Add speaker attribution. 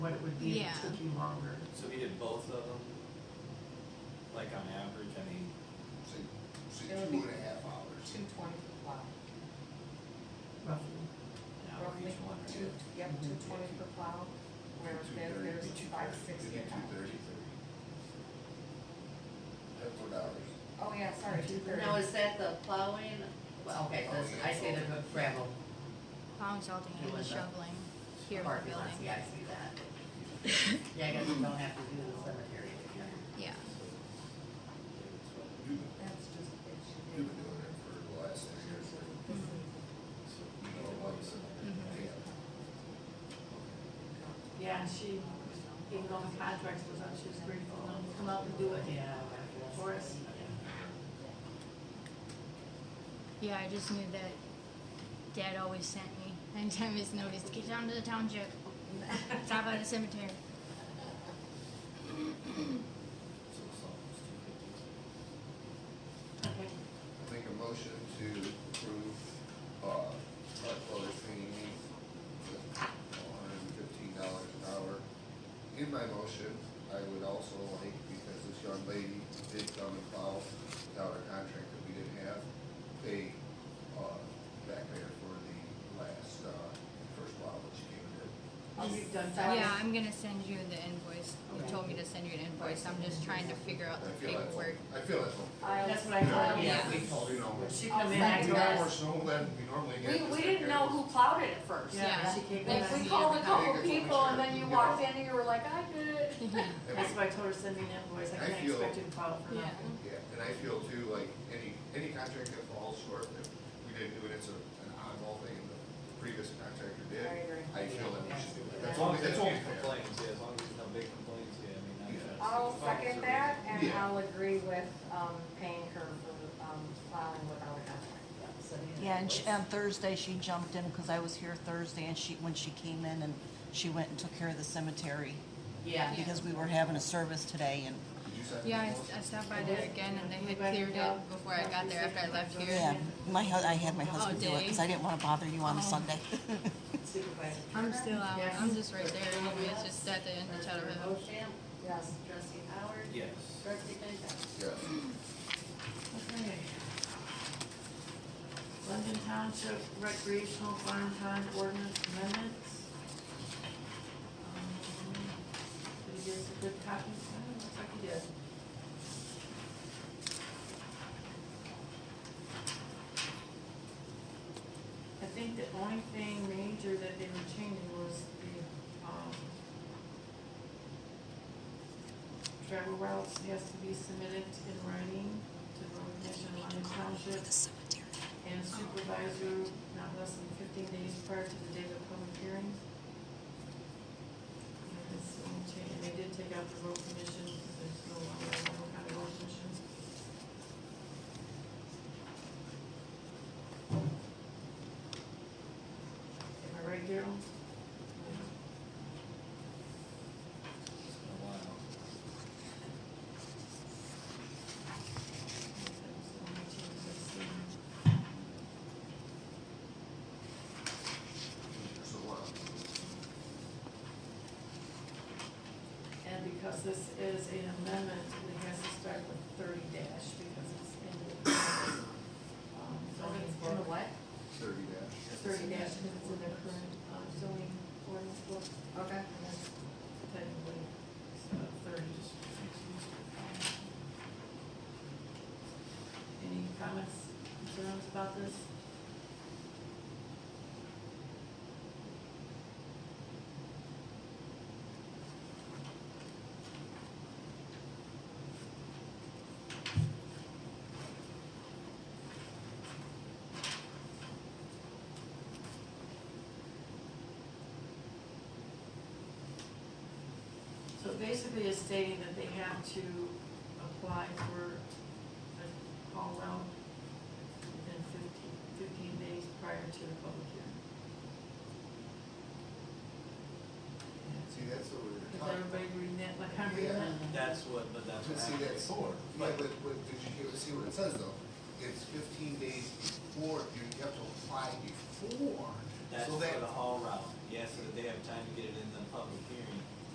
Speaker 1: what it would be if
Speaker 2: Yeah.
Speaker 1: it took you longer.
Speaker 3: So we did both of them? Like on average, I mean,
Speaker 4: say, say
Speaker 5: It would
Speaker 4: two
Speaker 5: be-
Speaker 4: and a half hours.
Speaker 5: Two twenty for plow,
Speaker 1: roughly.
Speaker 3: an hour
Speaker 5: roughly
Speaker 3: each one,
Speaker 5: two,
Speaker 3: right?
Speaker 5: yep, two twenty for plow, whereas there's, there's five sixty an
Speaker 4: Two
Speaker 5: hour.
Speaker 4: thirty, thirty. That's what hours.
Speaker 5: Oh, yeah, sorry, two thirty.
Speaker 6: Now, is that the plowing? Well, okay, so it's- I see the gravel
Speaker 2: Plowing, salting,
Speaker 6: It
Speaker 2: and
Speaker 6: was a
Speaker 2: shoveling here in the
Speaker 6: parking lot,
Speaker 2: building.
Speaker 6: yeah, I see that. Yeah, I guess you don't have to do the cemetery if you're.
Speaker 2: Yeah.
Speaker 4: You've been,
Speaker 5: That's just, it should be.
Speaker 4: you've been doing it for the last three years, so
Speaker 5: Mm-hmm.
Speaker 4: you
Speaker 3: Oh,
Speaker 4: know what's.
Speaker 2: Mhm.
Speaker 7: Yeah, she, even though the contract was up, she was grateful to come out and do it.
Speaker 6: Yeah.
Speaker 7: For us.
Speaker 2: Yeah, I just knew that Dad always sent me anytime he's noticed, get down to the township, stop by the cemetery.
Speaker 3: So it's almost two fifty.
Speaker 4: I Make a motion to approve, uh, Mark Flowers painting me with one hundred and fifteen dollars an hour. In my motion, I would also like, because this young lady did come and file without a contract that we didn't have, pay, uh, back there for the last, uh, first while that she came in.
Speaker 5: I'll
Speaker 7: You've done
Speaker 5: start-
Speaker 2: Yeah, I'm gonna send you the invoice. You told me to send you an invoice. I'm just trying to figure out
Speaker 4: I
Speaker 2: the
Speaker 4: feel that's,
Speaker 2: paperwork.
Speaker 4: I feel that's.
Speaker 5: I'll-
Speaker 7: That's what I thought.
Speaker 6: Yeah, we told
Speaker 4: You know,
Speaker 7: She
Speaker 5: I'll
Speaker 7: come in
Speaker 5: second
Speaker 7: and
Speaker 4: we got more
Speaker 7: goes.
Speaker 4: snow than we normally get.
Speaker 5: We,
Speaker 4: this
Speaker 5: we
Speaker 4: time
Speaker 5: didn't
Speaker 4: here.
Speaker 5: know who plowed it at first.
Speaker 7: Yeah,
Speaker 2: Yeah.
Speaker 7: she came in.
Speaker 5: Like, we
Speaker 7: and-
Speaker 5: called a couple
Speaker 4: Yeah.
Speaker 5: people and then you walked in and you were like, I did it.
Speaker 4: And we-
Speaker 7: That's why I told her send me an invoice, I
Speaker 4: I
Speaker 7: can't
Speaker 4: feel-
Speaker 7: expect you to file for
Speaker 2: Yeah.
Speaker 7: nothing.
Speaker 4: Yeah, and I feel too, like, any, any contract that falls short, if we didn't do it, it's a, an oddball thing, the previous contractor
Speaker 5: I
Speaker 4: did.
Speaker 5: agree.
Speaker 4: I feel that we should do it.
Speaker 3: As
Speaker 4: That's
Speaker 3: long
Speaker 4: only,
Speaker 3: as there's no
Speaker 4: that's only
Speaker 3: big
Speaker 4: fair.
Speaker 3: complaints, yeah, as long as there's no big complaints, yeah, I mean,
Speaker 4: Yeah.
Speaker 3: that's.
Speaker 5: I'll second that and
Speaker 4: Yeah.
Speaker 5: I'll agree with, um, paying her for, um, plowing without a contract.
Speaker 8: Yeah, and um, she, on Thursday, she jumped in, because I was here Thursday, and she, when she came in, and she went and took care of the cemetery,
Speaker 6: Yeah.
Speaker 8: because we were having a service today, and,
Speaker 4: Did you second
Speaker 2: Yeah, I s-
Speaker 4: that motion?
Speaker 2: I stopped by there again and they had cleared it before I got there after I left
Speaker 8: yeah,
Speaker 2: here.
Speaker 8: my hu- I had my husband do it,
Speaker 2: Dave.
Speaker 8: because I didn't wanna bother you on a
Speaker 2: Oh.
Speaker 8: Sunday.
Speaker 7: Supervisor.
Speaker 2: I'm still out. I'm just right there. anyway. It's just at the end of Chatham Hill.
Speaker 6: Bochamp,
Speaker 5: Yes.
Speaker 6: trustee Howard.
Speaker 3: Yes.
Speaker 6: Trustee Benton.
Speaker 4: Yes.
Speaker 7: Okay. London Township Recreational Farm Time Ordinance Amendments. Um, Did you give us a good copy? Oh, Looks like you did. I think the only thing major that they were changing was the, um, travel routes has to be submitted in writing to Road Commission London Township
Speaker 8: cemetery.
Speaker 7: and supervisor not less than fifteen days prior to the date of public hearing. And this will change- they did take out the road commission, because there's no longer a Lowell County road commission. Am I right, Daryl?
Speaker 3: It's been a while.
Speaker 7: That was the only changes I've seen.
Speaker 4: So, uh,
Speaker 7: And because this is an amendment, it has to start with thirty dash because it's in the. um, zoning
Speaker 5: In the
Speaker 7: book.
Speaker 5: what?
Speaker 4: thirty dash.
Speaker 7: Thirty dash because it's in the current um, zoning ordinance book.
Speaker 5: Okay.
Speaker 7: And that's technically uh, thirty. Any comments, concerns about this? So basically it's stating that they have to apply for a call out within fifteen, fifteen days prior to the public hearing.
Speaker 4: See, that's what we were
Speaker 7: Is
Speaker 4: talking.
Speaker 7: everybody reading that, like I'm reading that?
Speaker 3: That's what, but that's.
Speaker 4: But see,
Speaker 3: what
Speaker 4: that's, yeah, but, but, did you hear, see what it says though? It's fifteen days before, you have to apply before.
Speaker 3: That's
Speaker 4: So that-
Speaker 3: for the whole route, yes, so that they have time to get it in the public hearing,